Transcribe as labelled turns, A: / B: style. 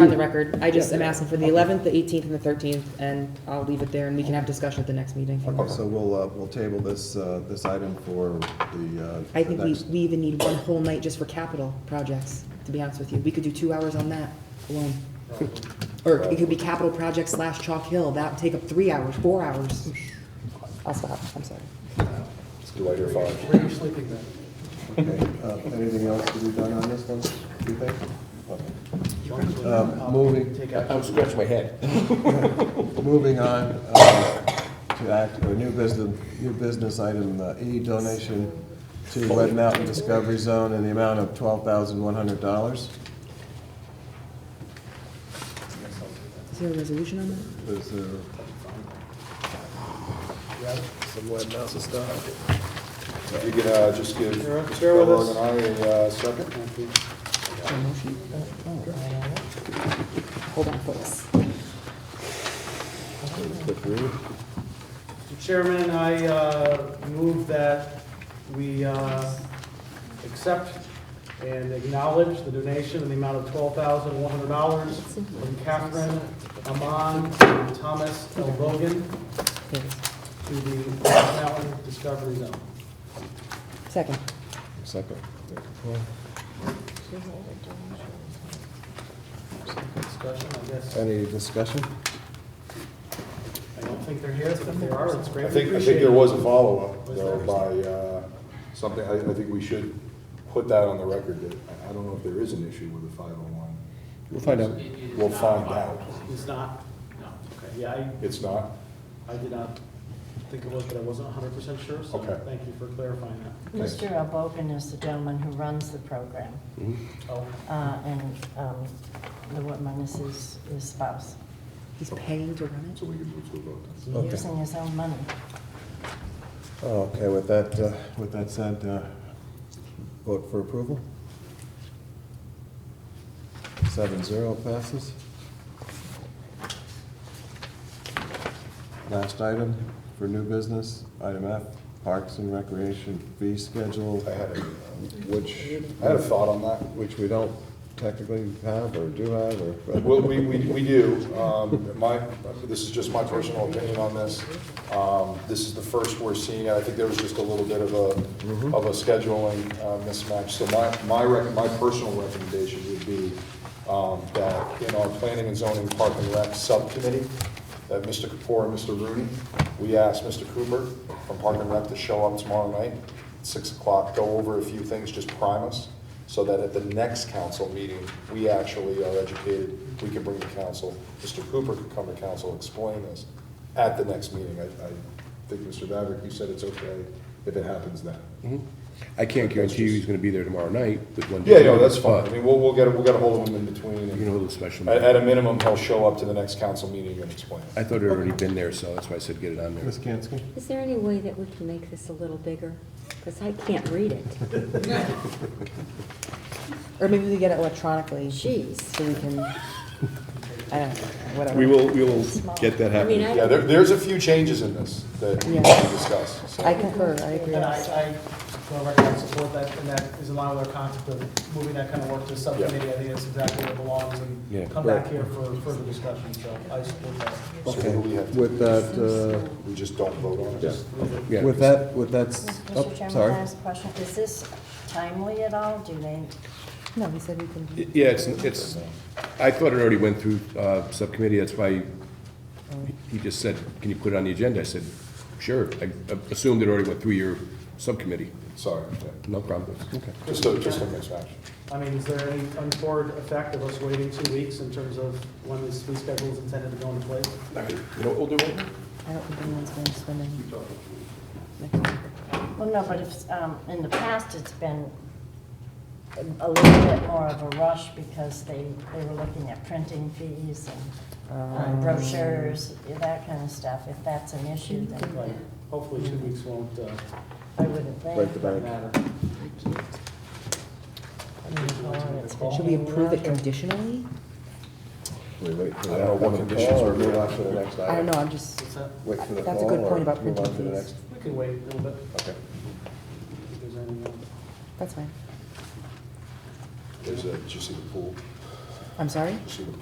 A: on the record, I just am asking for the 11th, the 18th, and the 13th, and I'll leave it there, and we can have discussion at the next meeting.
B: Okay, so we'll, uh, we'll table this, uh, this item for the, uh,
A: I
B: the
A: think we,
B: next-
A: we even need one whole night just for capital projects, to be honest with you. We could do two hours on that alone. Or it could be capital project slash Chalk Hill, that would take up three hours, four hours. I'll stop, I'm sorry.
C: Do I hear five?
D: Where are you sleeping then?
B: Okay, uh, anything else to be done on this one, do you think? Okay.
D: I'll
B: moving-
D: Take out.
C: I'm scratching my head.
B: Moving on uh, to act, or new business, new business item uh, E, donation to Wet Mountain Discovery Zone in the amount of twelve thousand one hundred dollars.
A: Is there a resolution on that?
B: Is there,
C: If you could uh, just give
D: Share
C: Mr.
D: with
C: Kellogg
D: us.
C: and I a uh, second.
A: A motion? Hold on, folks.
D: Mr. Chairman, I uh, move that we uh, accept and acknowledge the donation in the amount of $12,100 from Catherine Amon and Thomas L. Bogan
A: There it is.
D: to the Black Mountain Discovery Zone.
A: Second.
B: second?
D: Discussion, I guess.
B: Any discussion?
D: I don't think they're here, but if they are, it's
C: I
D: greatly
C: think, I think there
D: appreciated.
C: was a follow-up
D: Was
C: though
D: there?
C: by uh, something, I, I think we should put that on the record that, I- I don't know if there is an issue with the 501.
B: We'll find out.
C: We'll find out.
D: It's not, no, okay, yeah, I,
C: It's not?
D: I did not think it was, but I wasn't hundred percent sure, so
C: Okay.
D: thank you for clarifying that.
E: Mr. Albogan is the gentleman who runs the program,
D: Oh,
E: uh, and um, the woman is his his spouse.
A: He's paying to run
C: So we can move to a vote.
E: He's
C: then.
B: Okay.
E: using his own money.
B: Okay, with that, uh, with that said, uh, vote for approval? Seven zero passes. Last item for new business, item F, Parks and Recreation fee schedule,
C: I had a, uh,
B: which,
C: I had a thought on that.
B: which we don't technically have or do have or.
C: Well, we, we, we do. Um, My, this is just my personal opinion on this. Um, This is the first we're seeing it. I think there was just a little bit of a, of a scheduling uh, mismatch. So my, my, rec- my personal recommendation would be um, that in our planning and zoning park and rec subcommittee, that Mr. Kapoor and Mr. Rooney, we asked Mr. Cooper from Park and Rec to show up tomorrow night, six o'clock, go over a few things, just prime us, so that at the next council meeting, we actually are educated, we can bring the council, Mr. Cooper could come to council, explain this at the next meeting. I, I think, Mr. Maverick, you said it's okay if it happens then.
F: I can't guarantee you he's gonna be there tomorrow night, but one day.
C: Yeah, no, that's fine. I
F: But,
C: mean, we'll, we'll get, we'll get a hold of him in between.
F: You
C: and
F: know, the special,
C: At, at a minimum, he'll show up to the next council meeting and explain it.
F: I thought it had already been there, so that's why I said get it on there.
B: Ms. Kansky?
G: Is there any way that we can make this a little bigger? Because I can't read it.
A: it. Or maybe we get it electronically, so
G: Jeez.
A: we can, I don't know, whatever.
F: We will, we will get that
G: I
F: happening.
G: mean,
C: Yeah,
G: I,
C: there, there's a few changes in this that we need
A: Yeah.
C: to discuss, so.
A: I concur, I agree.
D: And I, I, for the record, I support that, and that is in line with our concept of moving that kind of work to subcommittee. I think that's exactly where it belongs,
F: Yeah.
D: and come back here for further discussion, so I support that.
C: So what do we have to,
B: With that, uh,
C: we just don't vote on it?
B: Yeah.
F: Yeah.
B: with that, with that, s- oh,
E: Mr. Chairman, can
B: sorry.
E: I ask a question? Is this timely at all? Do they,
A: No, he said we can.
F: Yeah, it's, it's, I thought it already went through, uh, subcommittee, that's why he just said, can you put it on the agenda? I said, sure, I assumed it already went through your subcommittee,
C: Sorry, yeah.
F: no problem. Okay.
C: just a, just a mismatch.
D: I mean, is there any untoward effect of us waiting two weeks in terms of when this fee schedule is intended to go into place?
F: You know what we'll do?
A: I don't think anyone's going to spend any.
E: well, no, but if, um, in the past, it's been a little bit more of a rush because they, they were looking at printing fees and uh, brochures, that kind of stuff. If that's an issue,
D: Like,
E: then
D: hopefully two weeks won't, uh,
E: I wouldn't think.
B: Break the bank.
D: matter.
A: Should we approve it conditionally?
B: We wait for
C: I
B: that.
C: don't know what conditions
B: Or
C: we're
B: move
C: gonna-
B: on to the next item?
A: I don't know, I'm just,
D: What's that?
B: Wait for the
A: That's a
B: call
A: good point
B: or
A: about
B: move on
A: printing
B: to the
A: fees.
B: next?
D: We can wait a little bit,
B: Okay.
D: if there's any, uh,
A: that's fine.
C: There's a, did you see the pool?
A: I'm sorry?
C: Did you see the